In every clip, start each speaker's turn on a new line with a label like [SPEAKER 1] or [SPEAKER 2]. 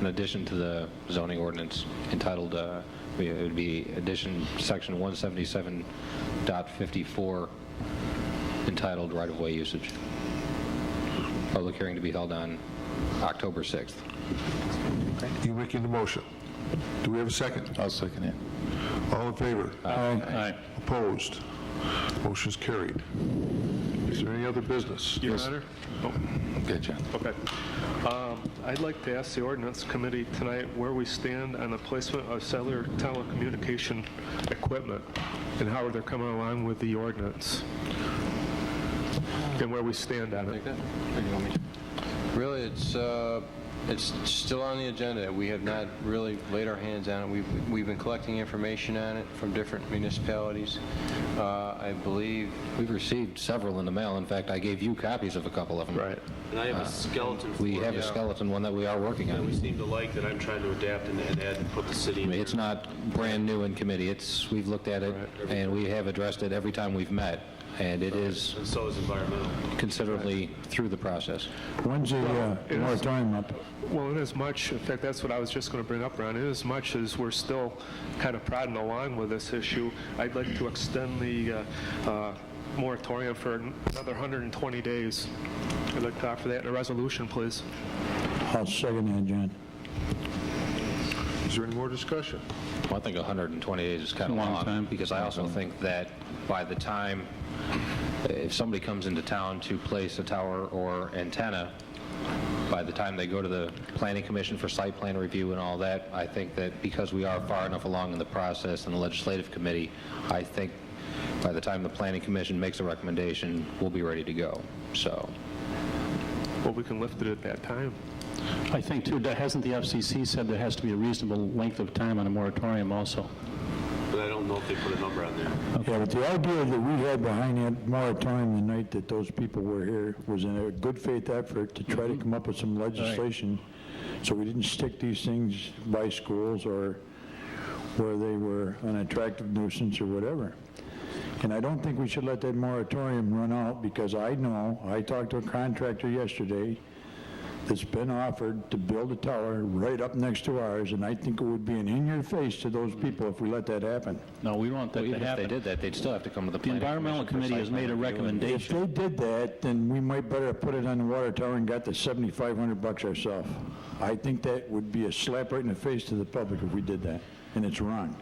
[SPEAKER 1] in addition to the zoning ordinance entitled, uh, we- it would be addition, section 177.54 entitled right-of-way usage. Public hearing to be held on October 6th.
[SPEAKER 2] You're making the motion. Do we have a second?
[SPEAKER 3] I'll second it.
[SPEAKER 2] All in favor?
[SPEAKER 3] Aye.
[SPEAKER 2] Opposed? Motion's carried. Is there any other business?
[SPEAKER 4] Your Honor? Oh,
[SPEAKER 3] Gotcha.
[SPEAKER 4] Okay. Um, I'd like to ask the ordinance committee tonight where we stand on the placement of cellular telecommunication equipment and how they're coming along with the ordinance and where we stand on it.
[SPEAKER 5] Really, it's, uh, it's still on the agenda. We have not really laid our hands on it. We've, we've been collecting information on it from different municipalities. Uh, I believe,
[SPEAKER 1] We've received several in the mail. In fact, I gave you copies of a couple of them.
[SPEAKER 4] Right.
[SPEAKER 6] And I have a skeleton
[SPEAKER 1] Uh, We
[SPEAKER 6] for
[SPEAKER 1] have
[SPEAKER 6] it
[SPEAKER 1] a skeleton one that we are working
[SPEAKER 6] that we
[SPEAKER 1] on.
[SPEAKER 6] seem to like that I'm trying to adapt and and add and put the city
[SPEAKER 1] I
[SPEAKER 6] in.
[SPEAKER 1] mean, It's not brand new in committee. It's, we've looked at it, and we have addressed it every time we've met, and it is
[SPEAKER 6] And so is environmental.
[SPEAKER 1] considerably through the process.
[SPEAKER 3] When's the uh,
[SPEAKER 4] it is-
[SPEAKER 3] moratorium up?
[SPEAKER 4] Well, inasmuch, in fact, that's what I was just going to bring up, Ron, inasmuch as we're still kind of prodding along with this issue, I'd like to extend the uh, uh, moratorium for another 120 days. I'd like to offer that in a resolution, please.
[SPEAKER 3] I'll second that, John.
[SPEAKER 2] Is there any more discussion?
[SPEAKER 1] Well, I think 120 days is kind of long.
[SPEAKER 3] long time.
[SPEAKER 1] Because I also think that by the time, if somebody comes into town to place a tower or antenna, by the time they go to the planning commission for site plan review and all that, I think that because we are far enough along in the process in the legislative committee, I think by the time the planning commission makes a recommendation, we'll be ready to go. So,
[SPEAKER 4] Well, we can lift it at that time.
[SPEAKER 7] I think too, that- hasn't the FCC said there has to be a reasonable length of time on a moratorium also?
[SPEAKER 6] But I don't know if they put a number on there.
[SPEAKER 3] Yeah, but the idea that we had behind that moratorium the night that those people were here was in a good faith effort to try to come up with some legislation, so we didn't stick these things by schools or where they were an attractive nuisance or whatever. And I don't think we should let that moratorium run out, because I know, I talked to a contractor yesterday that's been offered to build a tower right up next to ours, and I think it would be an in-your-face to those people if we let that happen.
[SPEAKER 7] No, we don't want that to
[SPEAKER 1] even if they
[SPEAKER 7] happen.
[SPEAKER 1] did that, they'd still have to come to the
[SPEAKER 7] The
[SPEAKER 1] planning commission.
[SPEAKER 7] environmental
[SPEAKER 1] for
[SPEAKER 7] committee
[SPEAKER 1] site
[SPEAKER 7] has made a
[SPEAKER 1] plan review and-
[SPEAKER 3] If
[SPEAKER 7] recommendation.
[SPEAKER 3] they did that, then we might better have put it on the water tower and got the 7,500 bucks ourselves. I think that would be a slap right in the face to the public if we did that, and it's wrong.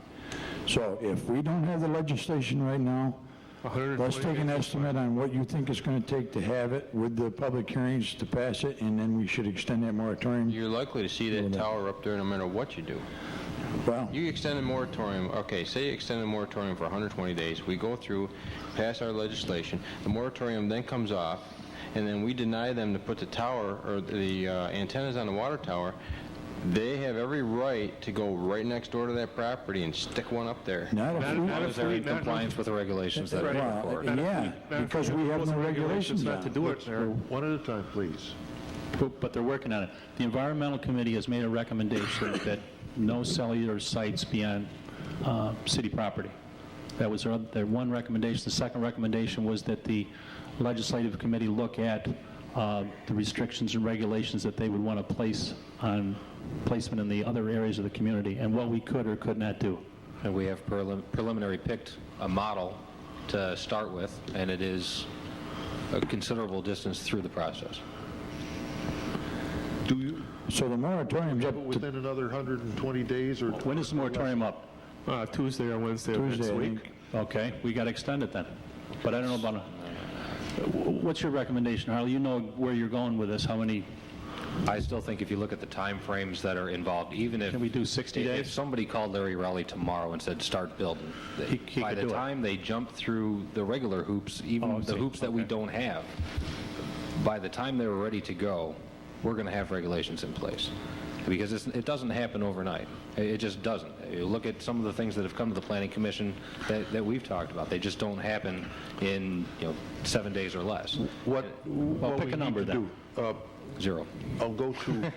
[SPEAKER 3] So if we don't have the legislation right now, let's
[SPEAKER 4] 120
[SPEAKER 3] take an
[SPEAKER 4] days.
[SPEAKER 3] estimate on what you think it's going to take to have it with the public hearings to pass it, and then we should extend that moratorium.
[SPEAKER 5] you're likely to see that tower up there no matter what you do.
[SPEAKER 3] Well,
[SPEAKER 5] You extend the moratorium, okay, say you extend the moratorium for 120 days, we go through, pass our legislation, the moratorium then comes off, and then we deny them to put the tower, or the uh, antennas on the water tower, they have every right to go right next door to that property and stick one up there.
[SPEAKER 3] not if we...
[SPEAKER 4] Not if
[SPEAKER 1] As they're
[SPEAKER 4] we-
[SPEAKER 1] in
[SPEAKER 4] not if we-
[SPEAKER 1] compliance with the regulations that are
[SPEAKER 3] Well,
[SPEAKER 1] for it.
[SPEAKER 3] Yeah, because we have no regulations
[SPEAKER 4] Not
[SPEAKER 3] now.
[SPEAKER 4] to do it there.
[SPEAKER 2] One at a time, please.
[SPEAKER 7] But but they're working on it. The environmental committee has made a recommendation that no cellular sites be on uh, city property. That was their oth- their one recommendation. The second recommendation was that the legislative committee look at uh, the restrictions and regulations that they would want to place on placement in the other areas of the community, and what we could or could not do.
[SPEAKER 1] And we have prelim- preliminary picked a model to start with, and it is a considerable distance through the process.
[SPEAKER 2] Do you,
[SPEAKER 3] So the moratorium's up
[SPEAKER 2] but
[SPEAKER 3] to
[SPEAKER 2] within another 120 days or
[SPEAKER 7] When is the moratorium up?
[SPEAKER 4] Uh, Tuesday or Wednesday of next
[SPEAKER 3] Tuesday, I
[SPEAKER 4] week.
[SPEAKER 3] think.
[SPEAKER 7] Okay, we got to extend it then. But I don't know about, a- what's your recommendation, Harley? You know where you're going with this, how many,
[SPEAKER 1] I still think if you look at the timeframes that are involved, even if...
[SPEAKER 7] Can we do 60
[SPEAKER 1] if- If
[SPEAKER 7] days?
[SPEAKER 1] somebody called Larry Rowley tomorrow and said, "Start building,"
[SPEAKER 7] He- he
[SPEAKER 1] by
[SPEAKER 7] could
[SPEAKER 1] the
[SPEAKER 7] do it.
[SPEAKER 1] time they jump through the regular hoops,
[SPEAKER 7] Oh,
[SPEAKER 1] even
[SPEAKER 7] I
[SPEAKER 1] the
[SPEAKER 7] see.
[SPEAKER 1] hoops that we
[SPEAKER 7] Okay.
[SPEAKER 1] don't have, by the time they're ready to go, we're going to have regulations in place. Because it's- it doesn't happen overnight. It it just doesn't. You look at some of the things that have come to the planning commission that that we've talked about. They just don't happen in, you know, seven days or less.
[SPEAKER 2] what?
[SPEAKER 7] well,
[SPEAKER 2] what
[SPEAKER 7] pick
[SPEAKER 2] we
[SPEAKER 7] a
[SPEAKER 2] need
[SPEAKER 7] number
[SPEAKER 2] to
[SPEAKER 7] then.
[SPEAKER 2] do? Uh,
[SPEAKER 1] Zero.
[SPEAKER 2] I'll go to,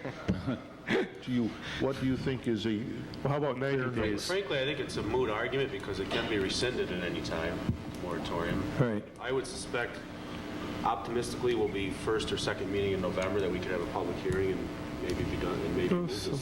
[SPEAKER 2] to you. What do you think is a,
[SPEAKER 4] Well, how about 90
[SPEAKER 2] Fair
[SPEAKER 4] days?
[SPEAKER 6] Frankly, I think it's a moot argument because it can be rescinded at any time, moratorium.
[SPEAKER 3] Right.
[SPEAKER 6] I would suspect optimistically will be first or second meeting in November that we could have a public hearing and maybe be done, and maybe move this